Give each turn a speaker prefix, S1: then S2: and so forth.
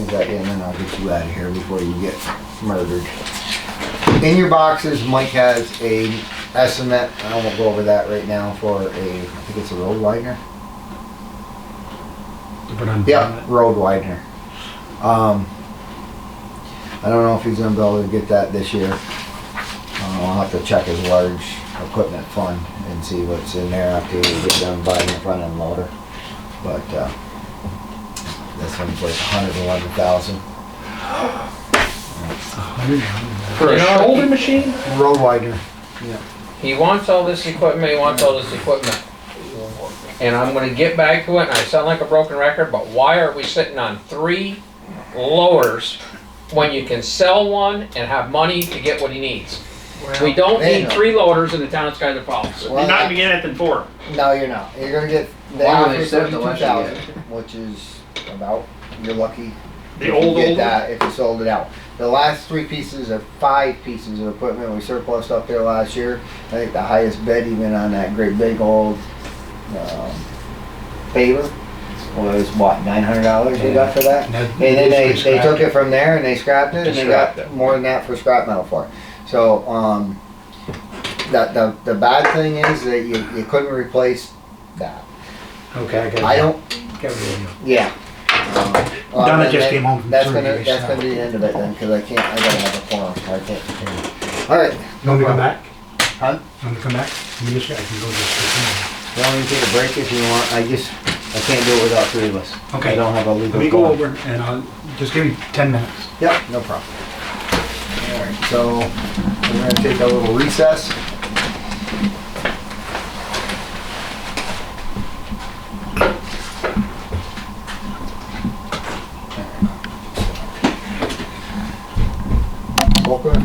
S1: that in and I'll get you out of here before you get murdered. In your boxes, Mike has a estimate, I won't go over that right now, for a, I think it's a road widener?
S2: But I'm
S1: Yeah, road widener. Um, I don't know if he's gonna be able to get that this year. Uh, I'll have to check his large equipment fund and see what's in there after we get done buying the front end loader. But, uh, this one's like hundred and eleven thousand.
S3: For a shoulder machine?
S1: Road widener.
S3: He wants all this equipment, he wants all this equipment. And I'm gonna get back to it, and I sound like a broken record, but why are we sitting on three loaders when you can sell one and have money to get what he needs? We don't
S1: Well,
S3: need three loaders in the town of Skyler Falls.
S4: You're not gonna get anything for it.
S1: No, you're not. You're gonna get the
S5: Wow,
S1: average
S5: they said the
S1: thirty-two
S5: less you
S1: thousand, which is about, you're lucky.
S4: The
S1: if you
S4: old,
S1: get
S4: old,
S1: that If you sold it out. The last three pieces or five pieces of equipment we surplused up there last year, I think the highest bid even on that great big old, um, paver was what, nine hundred dollars you got for that?
S2: And
S1: And then they, they took it from there and they scrapped it and they
S3: Scrapped
S1: got more than that for scrap metal for it. So, um, the, the, the bad thing is that you, you couldn't replace that.
S2: Okay, I got it.
S1: I don't,
S2: Got it.
S1: yeah. Um, well,
S2: Donna
S1: then
S2: just
S1: that-
S2: came home from
S1: That's gonna,
S2: surgery,
S1: that's
S2: so-
S1: gonna be the end of it then, cause I can't, I gotta have a forum, I can't. Alright,
S2: You want me to come back?
S1: Huh?
S2: You want me to come back? Let me just- I can go just.
S1: you want me to take a break if you want, I just, I can't do it without three of us. I
S2: Okay.
S1: don't have a legal.
S2: Let me go
S1: forum.
S2: over and I'll, just give me ten minutes.
S1: Yep, no problem. All right, so we're gonna take a little recess. Welcome.